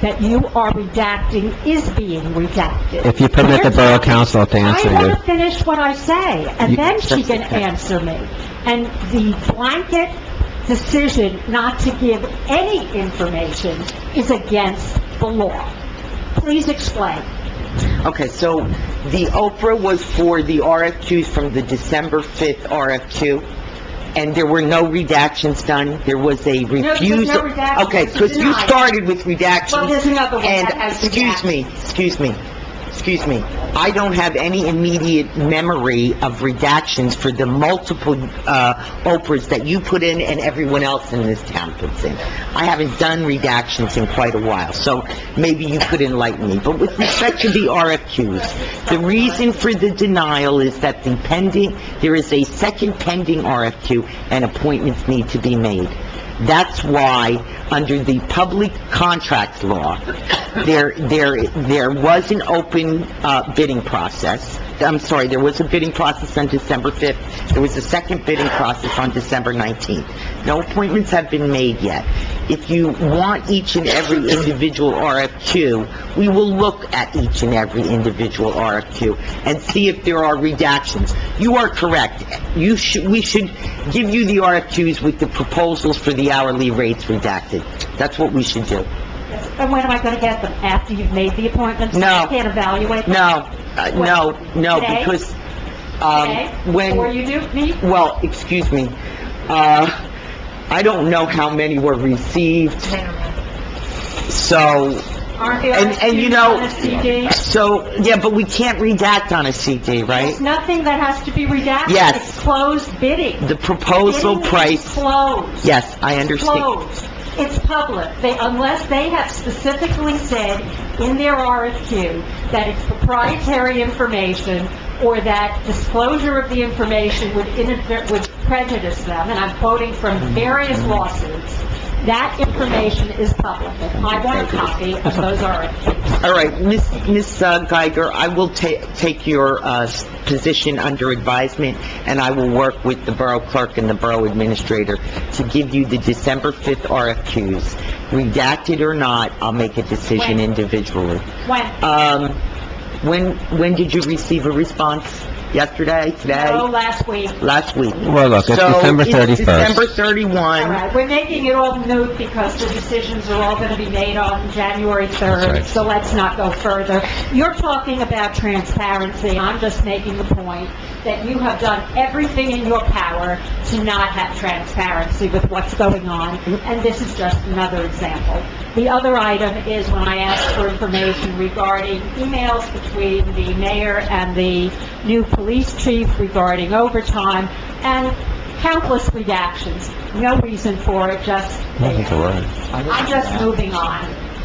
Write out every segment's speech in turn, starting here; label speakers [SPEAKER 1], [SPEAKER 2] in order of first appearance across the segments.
[SPEAKER 1] that you are redacting is being redacted.
[SPEAKER 2] If you permit the borough council to answer
[SPEAKER 1] I
[SPEAKER 2] you.
[SPEAKER 1] want to finish what I say, and
[SPEAKER 2] You-
[SPEAKER 1] then she can answer me. And the blanket decision not to give any information is against the law. Please explain.
[SPEAKER 3] Okay, so the Oprah was for the RFQs from the December 5th RFQ, and there were no redactions done. There was a
[SPEAKER 1] there's no
[SPEAKER 3] refusal.
[SPEAKER 1] redactions.
[SPEAKER 3] Okay, because you
[SPEAKER 1] Denied.
[SPEAKER 3] started with redactions.
[SPEAKER 1] Well, there's another one
[SPEAKER 3] And,
[SPEAKER 1] that has
[SPEAKER 3] excuse me, excuse me, excuse me. I don't have any immediate memory of redactions for the multiple, uh, Oprahs that you put in and everyone else in this town puts in. I haven't done redactions in quite a while, so maybe you could enlighten me. But with respect to the RFQs, the reason for the denial is that the pending, there is a second pending RFQ and appointments need to be made. That's why, under the public contract law, there, there, there was an open, uh, bidding process. I'm sorry, there was a bidding process on December 5th. There was a second bidding process on December 19th. No appointments have been made yet. If you want each and every individual RFQ, we will look at each and every individual RFQ and see if there are redactions. You are correct. You should, we should give you the RFQs with the proposals for the hourly rates redacted. That's what we should do.
[SPEAKER 1] And when am I going to get them? After you've made the appointments?
[SPEAKER 3] No.
[SPEAKER 1] I can't evaluate them?
[SPEAKER 3] No, uh, no, no,
[SPEAKER 1] Today?
[SPEAKER 3] because, um,
[SPEAKER 1] Okay?
[SPEAKER 3] when...
[SPEAKER 1] Or you do, me?
[SPEAKER 3] Well, excuse me, uh, I don't know how many were received, so,
[SPEAKER 1] Aren't they
[SPEAKER 3] And- and you
[SPEAKER 1] RSVP'd
[SPEAKER 3] know-
[SPEAKER 1] on a CD?
[SPEAKER 3] so, yeah, but we can't redact on a CD, right?
[SPEAKER 1] There's nothing that has to be redacted.
[SPEAKER 3] Yes.
[SPEAKER 1] It's closed bidding.
[SPEAKER 3] The proposal
[SPEAKER 1] Bidding is
[SPEAKER 3] price,
[SPEAKER 1] Closed.
[SPEAKER 3] yes, I understand.
[SPEAKER 1] Closed. It's public. They, unless they have specifically said in their RFQ that it's proprietary information or that disclosure of the information would inadvert, would prejudice them, and I'm quoting from various lawsuits, that information is public. And I want a copy of those RFQs.
[SPEAKER 3] All right, Miss Miss, uh, Geiger, I will ta- take your uh, s- position under advisement, and I will work with the Borough Clerk and the Borough Administrator to give you the December 5th RFQs. Redacted or not, I'll make a decision
[SPEAKER 1] When?
[SPEAKER 3] individually.
[SPEAKER 1] When?
[SPEAKER 3] Um, when, when did you receive a response? Yesterday,
[SPEAKER 1] Oh,
[SPEAKER 3] today,
[SPEAKER 1] last week.
[SPEAKER 3] last week?
[SPEAKER 2] Well, look, it's
[SPEAKER 3] So,
[SPEAKER 2] December
[SPEAKER 3] it's
[SPEAKER 2] 31st.
[SPEAKER 3] December
[SPEAKER 1] All
[SPEAKER 3] 31.
[SPEAKER 1] right, we're making it all moot because the decisions are all going to be made on January 3rd,
[SPEAKER 2] right.
[SPEAKER 1] so let's not go further. You're talking about transparency, I'm just making the point that you have done everything in your power to not have transparency with what's going on, and this is just another example. The other item is when I asked for information regarding emails between the mayor and the new police chief regarding overtime, and countless redactions, no reason for it, just... I'm just moving on.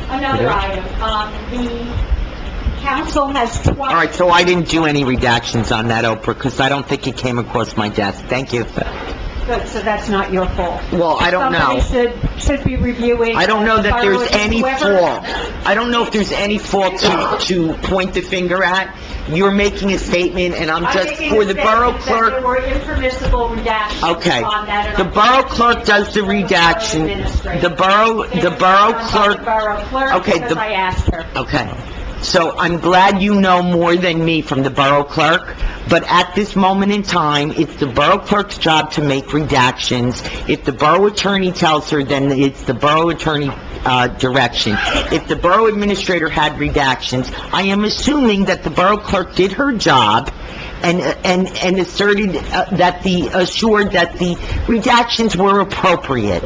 [SPEAKER 1] Another item, um, the council has twice...
[SPEAKER 3] All right, so I didn't do any redactions on that, Oprah, because I don't think it came across my desk. Thank you.
[SPEAKER 1] Good, so that's not your fault.
[SPEAKER 3] Well, I don't know.
[SPEAKER 1] Somebody should, should be reviewing...
[SPEAKER 3] I don't know that there's
[SPEAKER 1] Whoever-
[SPEAKER 3] any fault. I don't know if there's any fault to, to point the finger at. You're making a statement, and I'm
[SPEAKER 1] I'm
[SPEAKER 3] just,
[SPEAKER 1] making a
[SPEAKER 3] for the Borough
[SPEAKER 1] statement that
[SPEAKER 3] Clerk,
[SPEAKER 1] there were impermissible redactions
[SPEAKER 3] Okay.
[SPEAKER 1] on that, and
[SPEAKER 3] The
[SPEAKER 1] I'm-
[SPEAKER 3] borough clerk does the redaction. The borough, the borough
[SPEAKER 1] The
[SPEAKER 3] clerk,
[SPEAKER 1] borough clerk,
[SPEAKER 3] Okay,
[SPEAKER 1] because
[SPEAKER 3] the-
[SPEAKER 1] I asked her.
[SPEAKER 3] okay. So I'm glad you know more than me from the borough clerk, but at this moment in time, it's the borough clerk's job to make redactions. If the borough attorney tells her, then it's the borough attorney, uh, direction. If the borough administrator had redactions, I am assuming that the borough clerk did her job and, and, and asserted uh, that the, assured that the redactions were appropriate.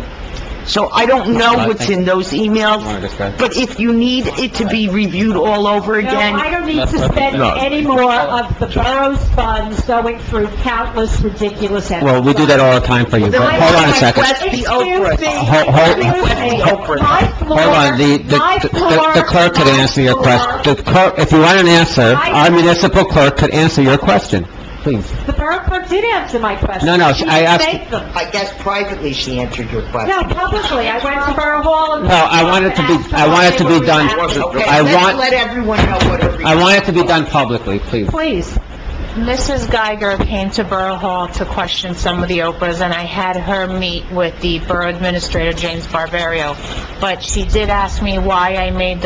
[SPEAKER 3] So I don't know what's in those emails,
[SPEAKER 2] Wanna discuss?
[SPEAKER 3] but if you need it to be reviewed all over
[SPEAKER 1] No, I
[SPEAKER 3] again,
[SPEAKER 1] don't need to spend
[SPEAKER 2] No.
[SPEAKER 1] any more of the borough's funds going through countless ridiculous...
[SPEAKER 2] Well, we do that all the time for you, but hold on a second.
[SPEAKER 3] Request the Oprah.
[SPEAKER 1] Excuse me.
[SPEAKER 2] Hold- hold-
[SPEAKER 1] Excuse me. My floor-
[SPEAKER 2] Hold on, the, the-
[SPEAKER 1] my
[SPEAKER 2] the the clerk could
[SPEAKER 1] floor-
[SPEAKER 2] answer your
[SPEAKER 1] my
[SPEAKER 2] question.
[SPEAKER 1] floor.
[SPEAKER 2] The clerk, if you want an answer, our municipal clerk could answer your question, please.
[SPEAKER 1] The borough clerk did answer my question.
[SPEAKER 2] No, no,
[SPEAKER 1] She
[SPEAKER 2] I asked-
[SPEAKER 1] thanked them.
[SPEAKER 3] I guess privately she answered your
[SPEAKER 1] No,
[SPEAKER 3] question.
[SPEAKER 1] publicly, I went to Borough Hall and...
[SPEAKER 2] No, I want it to be- I want it to be done. It wasn't-
[SPEAKER 3] Okay,
[SPEAKER 2] I
[SPEAKER 3] let's
[SPEAKER 2] want-
[SPEAKER 3] let everyone know what a
[SPEAKER 2] I want it to be done publicly, please.
[SPEAKER 1] Please.
[SPEAKER 4] Mrs. Geiger came to Borough Hall to question some of the Oprahs, and I had her meet with the Borough Administrator, James Barbario, but she did ask me why I made the